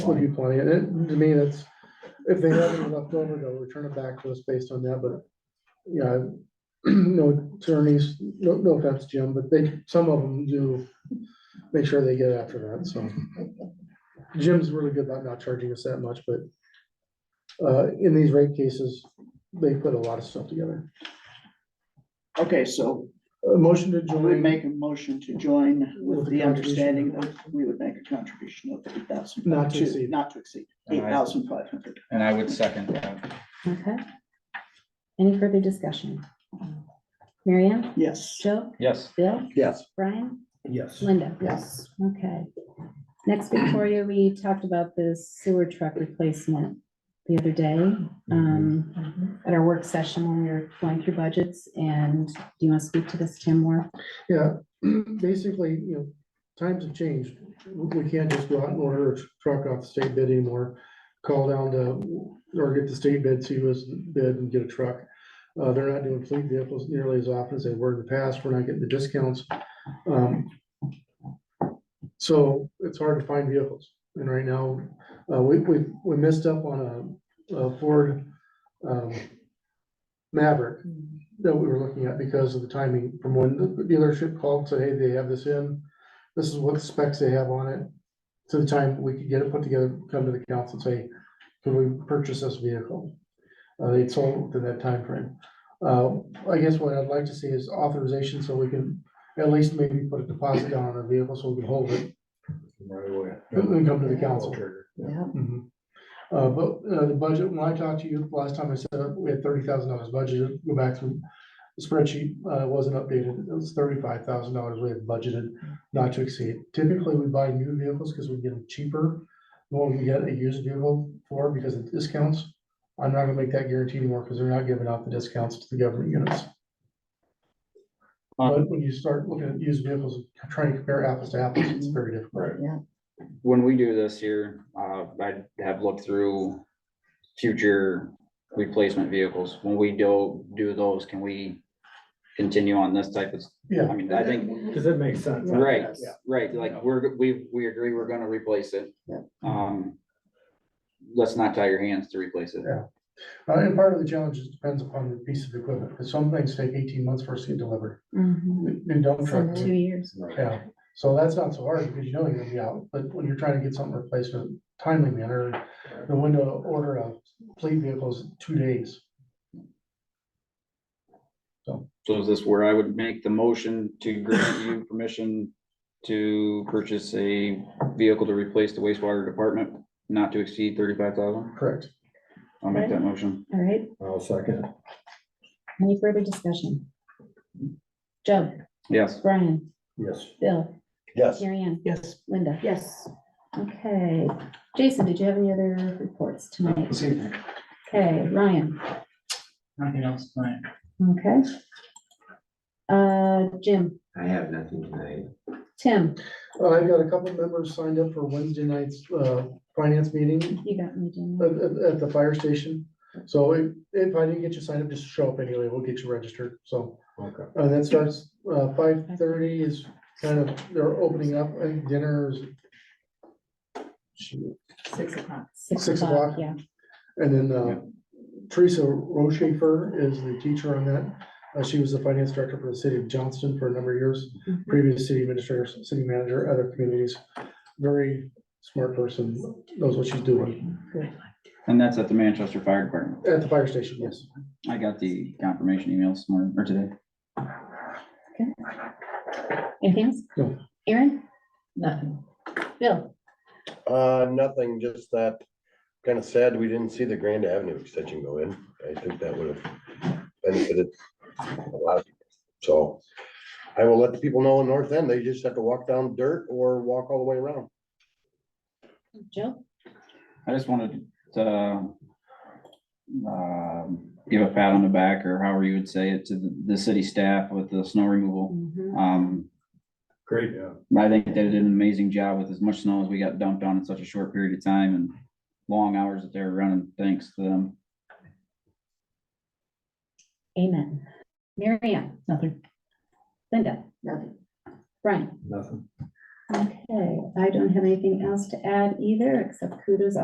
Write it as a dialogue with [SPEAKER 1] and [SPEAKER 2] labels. [SPEAKER 1] would be plenty, and it, to me, that's, if they have any left over, they'll return it back to us based on that, but, yeah, no attorneys, no, no offense, Jim, but they, some of them do make sure they get after that, so. Jim's really good about not charging us that much, but uh, in these rate cases, they put a lot of stuff together.
[SPEAKER 2] Okay, so
[SPEAKER 1] A motion to
[SPEAKER 2] I would
[SPEAKER 1] join,
[SPEAKER 2] make a motion to join
[SPEAKER 1] Um, With
[SPEAKER 2] with
[SPEAKER 1] the
[SPEAKER 2] the understanding
[SPEAKER 1] contribution.
[SPEAKER 2] that we would make a contribution of eight thousand.
[SPEAKER 1] Not to exceed.
[SPEAKER 2] Not to exceed,
[SPEAKER 3] All
[SPEAKER 2] eight
[SPEAKER 3] right.
[SPEAKER 2] thousand five hundred.
[SPEAKER 3] And I would second that.
[SPEAKER 4] Okay. Any further discussion? Marianne,
[SPEAKER 2] Yes,
[SPEAKER 4] Joe,
[SPEAKER 3] Yes,
[SPEAKER 4] Bill,
[SPEAKER 1] yes,
[SPEAKER 4] Brian?
[SPEAKER 1] yes,
[SPEAKER 4] Linda?
[SPEAKER 2] Yes.
[SPEAKER 4] Okay. Next, Victoria, we talked about the sewer truck replacement the other day,
[SPEAKER 5] Mm-hmm.
[SPEAKER 4] um, at our work session when we were going through budgets, and do you want to speak to this, Tim, more?
[SPEAKER 1] yeah, basically, you know, times have changed. We we can't just go out and order a truck off the state bid anymore, call down to, or get the state bid, see who's bid and get a truck. Uh, they're not doing fleet vehicles nearly as often as they were in the past, we're not getting the discounts. Um, So it's hard to find vehicles, and right now, uh, we, we, we missed up on a, a Ford, um, Maverick that we were looking at because of the timing from when the dealership called, said, hey, they have this in. This is what specs they have on it. To the time we could get it put together, come to the council and say, can we purchase this vehicle? Uh, they sold within that timeframe. Uh, I guess what I'd like to see is authorization so we can at least maybe put a deposit down on our vehicle so we can hold it
[SPEAKER 5] Right away.
[SPEAKER 1] and come to the council.
[SPEAKER 5] Yeah.
[SPEAKER 1] Mhm. Uh, but, uh, the budget, when I talked to you last time, I said we had thirty thousand dollars budgeted, go back through the spreadsheet, uh, it wasn't updated, it was thirty-five thousand dollars we had budgeted, not to exceed. Typically, we buy new vehicles because we get them cheaper, than what we can get a used vehicle for because of discounts. I'm not gonna make that guarantee anymore because they're not giving out the discounts to the government units. But when you start looking at used vehicles, trying to compare apples to apples, it's very difficult.
[SPEAKER 5] Right.
[SPEAKER 3] when we do this here, uh, I have looked through future replacement vehicles. When we do, do those, can we continue on this type of, I
[SPEAKER 1] Yeah,
[SPEAKER 3] mean, I think,
[SPEAKER 5] Does that make sense?
[SPEAKER 3] right,
[SPEAKER 5] Yeah.
[SPEAKER 3] right, like, we're, we, we agree we're gonna replace it.
[SPEAKER 2] Yeah.
[SPEAKER 3] Um, let's not tie your hands to replace it.
[SPEAKER 1] Uh, and part of the challenge is depends upon the piece of equipment, because some things take eighteen months for us to get delivered.
[SPEAKER 5] Mm-hmm.
[SPEAKER 1] New dump truck,
[SPEAKER 4] Two years.
[SPEAKER 1] yeah, so that's not so hard because you know you're gonna be out, but when you're trying to get something replaced in a timely manner, the window to order a fleet vehicle is two days.
[SPEAKER 3] So is this where I would make the motion to grant you permission to purchase a vehicle to replace the wastewater department, not to exceed thirty-five thousand?
[SPEAKER 1] Correct.
[SPEAKER 3] I'll make that motion.
[SPEAKER 4] All right,
[SPEAKER 5] I'll second. it.
[SPEAKER 4] any further discussion? Joe,
[SPEAKER 3] Yes,
[SPEAKER 4] Brian,
[SPEAKER 5] Yes.
[SPEAKER 4] Bill,
[SPEAKER 5] Yes.
[SPEAKER 4] Marianne,
[SPEAKER 2] yes.
[SPEAKER 4] Linda? Yes. Okay, Jason, did you have any other reports tonight? Okay, Ryan?
[SPEAKER 2] Nothing else, right?
[SPEAKER 4] Okay. Uh, Jim,
[SPEAKER 6] I have nothing tonight.
[SPEAKER 4] Tim,
[SPEAKER 1] Uh, I've got a couple of members signed up for Wednesday night's, uh, finance meeting
[SPEAKER 4] you got me, Jim.
[SPEAKER 1] at, at- at the fire station. So if, if I didn't get you signed up, just show up anyway, we'll get you registered, so.
[SPEAKER 5] Okay.
[SPEAKER 1] Uh, that starts, uh, five thirty is kind of, they're opening up, I think dinner is. shoot,
[SPEAKER 4] Six o'clock.
[SPEAKER 1] Six o'clock.
[SPEAKER 4] Yeah.
[SPEAKER 1] And then, uh, Teresa Rochefer is the teacher on that. Uh, she was the finance director for the city of Johnston for a number of years,
[SPEAKER 4] Mhm.
[SPEAKER 1] previous city administrator, city manager, other communities. Very smart person, knows what she's doing
[SPEAKER 3] and that's at the Manchester Fire Department.
[SPEAKER 1] at the fire station, yes.
[SPEAKER 3] I got the confirmation emails this morning or today.
[SPEAKER 4] Anything else?
[SPEAKER 1] No.
[SPEAKER 4] Aaron?
[SPEAKER 2] Nothing.
[SPEAKER 4] Bill?
[SPEAKER 7] Uh, nothing, just that, kind of sad we didn't see the Grand Avenue extension go in. I think that would have benefited a lot of people. So I will let the people know in North End, they just have to walk down dirt or walk all the way around.
[SPEAKER 4] Joe?
[SPEAKER 3] I just wanted to uh, um, give a pat on the back or however you would say it to the, the city staff with the snow removal.
[SPEAKER 4] Mm-hmm.
[SPEAKER 3] Um,
[SPEAKER 5] Great, yeah.
[SPEAKER 3] I think they did an amazing job with as much snow as we got dumped on in such a short period of time and long hours that they were running. Thanks to them.
[SPEAKER 4] Amen. Mary Ann?
[SPEAKER 2] Nothing.
[SPEAKER 4] Linda?
[SPEAKER 2] Nothing.
[SPEAKER 4] Brian?
[SPEAKER 5] Nothing.
[SPEAKER 4] Okay, I don't have anything else to add either, except kudos